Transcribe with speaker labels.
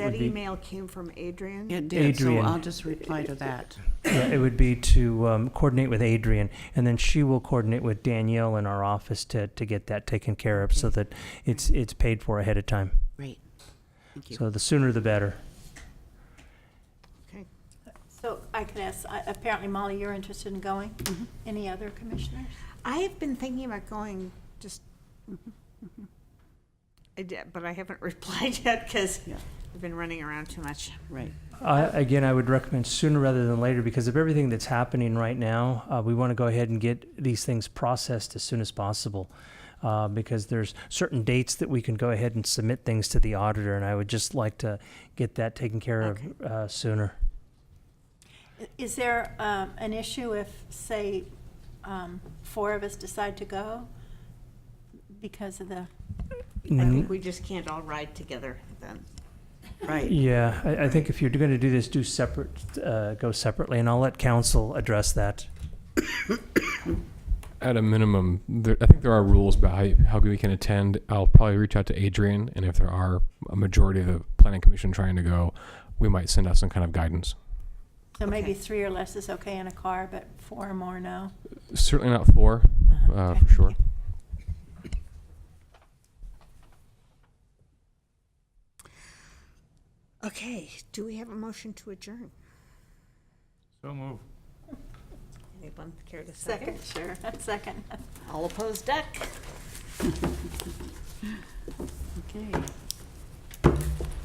Speaker 1: email came from Adrian.
Speaker 2: It did, so
Speaker 3: Adrian.
Speaker 2: I'll just reply to that.
Speaker 3: Yeah, uh, it would be to um, coordinate with Adrian, and then she will coordinate with Danielle in our office to, to get that taken care of so that it's, it's paid for ahead of time.
Speaker 2: Great. Thank you.
Speaker 3: So the sooner the better.
Speaker 1: Okay.
Speaker 4: So I can ask, I- apparently Molly, you're interested in going? Any other commissioners?
Speaker 1: I have been thinking about going just, I did, but I haven't replied yet because
Speaker 2: Yeah.
Speaker 1: I've been running around too much.
Speaker 2: Right.
Speaker 3: I, again, I would recommend sooner rather than later because of everything that's happening right now. Uh, we want to go ahead and get these things processed as soon as possible uh, because there's certain dates that we can go ahead and submit things to the auditor, and I would just like to get that taken care of uh, sooner.
Speaker 4: I- Is there um, an issue if, say, um, four of us decide to go because of the,
Speaker 1: I think we just can't all ride together then.
Speaker 2: Right.
Speaker 3: Yeah, I, I think if you're going to do this, do separate, uh, go separately, and I'll let council address that.
Speaker 5: At a minimum, there, I think there are rules about how, how we can attend. I'll probably reach out to Adrian, and if there are a majority of the planning commission trying to go, we might send out some kind of guidance.
Speaker 4: so maybe
Speaker 2: Okay.
Speaker 4: three or less is okay in a car, but four or more, no?
Speaker 5: Certainly not four,
Speaker 4: Uh-huh,
Speaker 5: uh,
Speaker 4: okay,
Speaker 5: for
Speaker 4: thank
Speaker 5: sure.
Speaker 4: you.
Speaker 1: Okay, do we have a motion to adjourn?
Speaker 6: So move.
Speaker 1: Anyone care to second?
Speaker 4: Second, sure, second.
Speaker 1: All opposed, Duck?
Speaker 2: Okay.